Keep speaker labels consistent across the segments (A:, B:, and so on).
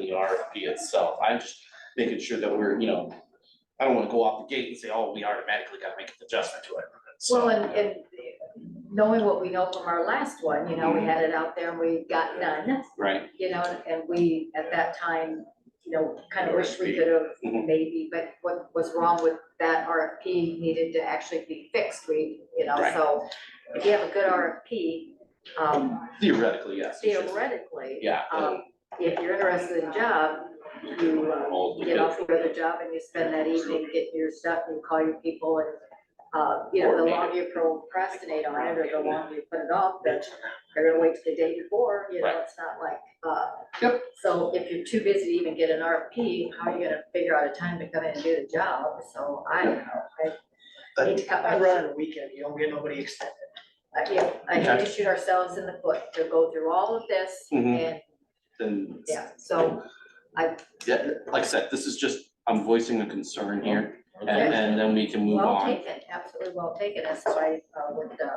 A: the RFP itself. I'm just making sure that we're, you know, I don't wanna go off the gate and say, oh, we automatically gotta make an adjustment to it. So,
B: Well, and, and knowing what we know from our last one, you
A: Mm-hmm.
B: know, we had it out there and we got none,
A: Right,
B: you know, and we, at that time, you know, kind of wish we could have
A: Mhm.
B: maybe, but what was wrong with that RFP needed to actually be fixed, we, you know,
A: Right.
B: so if you have a good RFP, um,
A: theoretically, yes. it should.
B: theoretically,
A: Yeah.
B: um, if you're interested in job, you, uh,
A: All the
B: get
A: bids.
B: off your other job and you spend that evening getting your stuff and call your people and, uh, you know, the
A: Coordinate it.
B: longer you procrastinate on it or the longer you put it off, then they're gonna wait till the day before, you
A: Right.
B: know, it's not like, uh. So if you're too busy to even get an RFP, how are you gonna figure out a time to come in and do the job? So I don't know, I need to cut my,
C: I run on a weekend, you don't get nobody extended.
B: I, yeah, I need to shoot ourselves in the foot to go through all of this
A: Mhm.
B: and,
A: Then,
B: yeah, so
A: yeah, like I said, this is just, I'm voicing a concern here, and,
B: Okay.
A: and then we can move
B: well
A: on.
B: taken, absolutely well taken, and so I, uh, would, uh,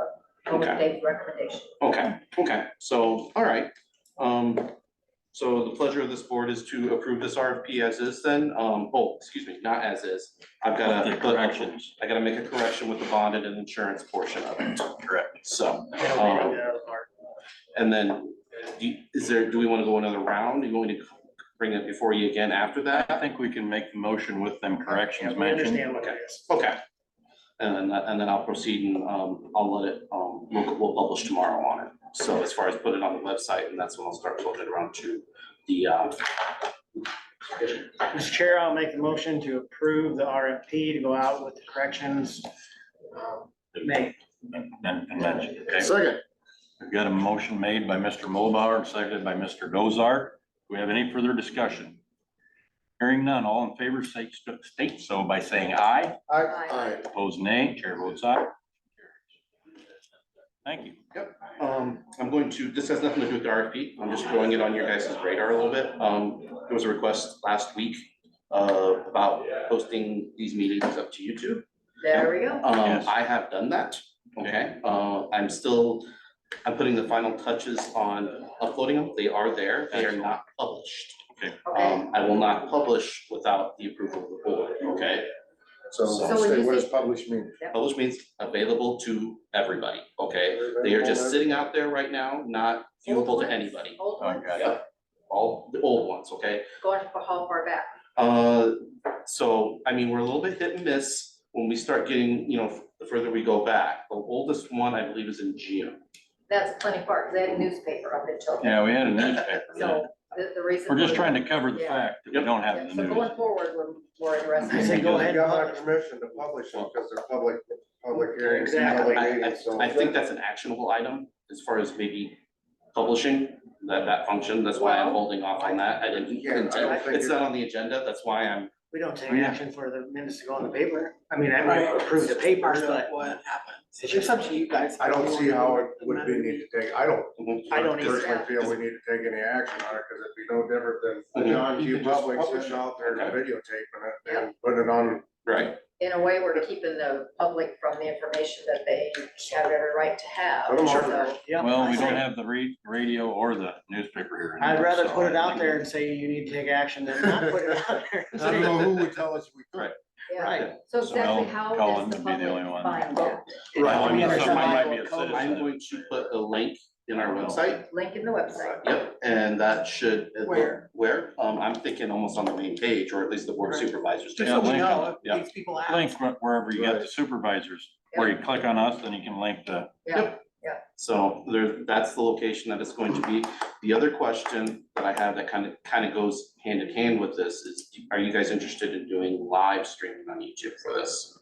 B: go with
A: Okay.
B: Dave's recommendation.
A: Okay, okay, so, all right. Um, so the pleasure of this board is to approve this RFP as is then, um, oh, excuse me, not as is. I've got
D: The
A: to.
D: corrections.
A: I gotta make a correction with the bond and an insurance portion of it. Correct. So,
C: I don't
A: Oh.
C: think that part.
A: and then, do, you- is there, do we wanna go another round? Do you want me to bring it before you again after
D: I
A: that?
D: think we can make the motion with them corrections
C: We
D: mentioned.
C: Understand what it is.
A: Okay. And then, and then I'll proceed and, um, I'll let it, um, we'll, we'll publish tomorrow on it. So as far as put it on the website, and that's when I'll start floating around to the, uh,
C: Mr. Chair, I'll make the motion to approve the RFP to go out with the corrections. um, May,
D: And convention, okay?
E: Second,
D: We've got a motion made by Mr. Mulbauer and seconded by Mr. Gozar. Do we have any further discussion? Hearing none, all in favor, state, state so by saying aye.
E: I,
B: Aye.
D: Opposed, nay. Chair votes aye. Thank you.
A: Um, I'm going to, this has nothing to do with the RFP, I'm just throwing it on your guys' radar a little bit. Um, there was a request last week uh, about posting these meetings up to YouTube.
B: There we go.
A: Um,
D: Yes.
A: I have done that, okay? Uh, I'm still, I'm putting the final touches on uploading them, they are there, they are not published.
B: Okay,
A: Um, I will not publish without the approval of the board, okay?
E: so,
B: So when
E: say,
B: you
E: what does
B: say-
E: publish mean?
A: Publish means available to everybody, okay? They are just sitting out there right now, not viewable to anybody.
B: old
D: Oh,
B: ones,
D: got it.
A: Yep, all the old ones, okay?
B: going for how far back?
A: Uh, so, I mean, we're a little bit hit and miss when we start getting, you know, the further we go back. The oldest one, I believe, is in June.
B: That's plenty far, because they had a newspaper up in Chilton.
D: Yeah, we had a newspaper.
B: So
D: then.
B: the, the reason.
D: We're just trying to cover the fact that we don't have
B: Yeah,
D: the
B: So
D: news.
B: going forward, we're more
C: I
B: interested.
C: say go ahead.
E: You got my permission to publish it because they're public, public hearings,
C: Exactly.
E: public
A: I, I,
E: meetings, so.
A: I think that's an actionable item as far as maybe publishing that, that function. That's why I'm holding off on that. I didn't
E: Yeah, I don't
A: intend,
E: think
A: it's
E: it-
A: not on the agenda. That's why I'm,
C: we don't take
D: Oh, yeah.
C: action for the minutes to go on the paper. I mean, I might approve the papers, but
F: What happens? It's just up to you guys.
E: I don't see how it would be need to take, I don't
C: I don't either.
E: personally feel we need to take any action on it because it'd be no different than
A: Okay.
E: John
A: You
E: Q.
A: can just
E: Public
A: publish
E: sitting
A: it.
E: out there
A: Okay.
E: videotaping it and putting it on.
A: right.
B: In a way, we're keeping the public from the information that they have every right to have.
E: Put 'em
B: So,
E: on there.
C: yeah.
D: Well, we don't have the re- radio or the newspaper here.
C: I'd rather
D: so
C: put it
D: I
C: out
D: think-
C: there and say you need to take action than not put it out there. and say-
E: who would tell us we
A: Right.
B: Yeah,
C: Right.
B: so
D: So
B: exactly
D: Mel
B: how
D: Cullen
B: does the
D: would be the only
B: public
D: one.
B: find that?
D: Right, I mean,
C: Yeah.
D: somebody might be a
C: Survival code.
A: I'm
D: citizen.
A: going to put a link in our website.
B: Link in the website.
A: Yep, and that should. uh,
F: Where?
A: Where? Um, I'm thinking almost on the main page or at least the board of
F: Right.
A: supervisors.
D: Yeah,
F: So we
D: link
F: know
A: yeah.
F: if these people ask.
D: link wh- wherever you get the
E: Right.
D: supervisors, where you click on us, then you can link the,
A: So there, that's the location that it's going to be. The other question that I have that kind of, kind of goes hand in hand with this is, are you guys interested in doing live streaming on YouTube for this?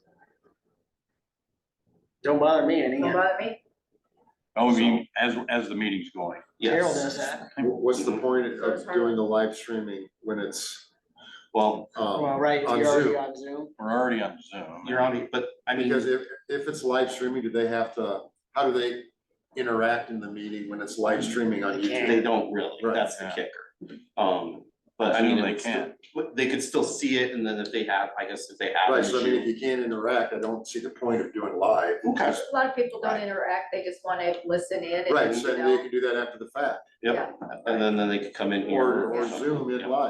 C: Don't bother me any.
B: Don't bother me,
D: oh, I mean, as, as the meeting's going.
C: Carol
A: Yes,
C: does that.
E: What's
A: the
E: point
B: So it's hard. doing
E: the live streaming when it's,
A: well,
C: Well, right,
E: Uh, On
C: you're already
E: Zoom.
C: on Zoom.
D: We're already on Zoom.
A: you're on, but I mean,
G: Because if, if it's live streaming, do they have to, how do they interact in the meeting when it's live streaming on
C: They can't.
G: YouTube?
A: they don't really, that's the
D: Right,
A: kicker. Um, but I mean,
D: Assume they
A: they can,
D: can.
A: they could still see it and then if they have, I guess if they have.
G: Right,
A: an
G: so I mean,
A: issue-
G: if you can't interact, I don't see the point of doing live.
A: Okay,
B: a lot of people don't interact, they just wanna listen in and,
G: Right,
B: you
G: so
B: know.
G: they can do that after the fact,
A: yep, and then, then they could come in here.
G: or, or
A: something,
G: Zoom
A: yeah.
G: in live.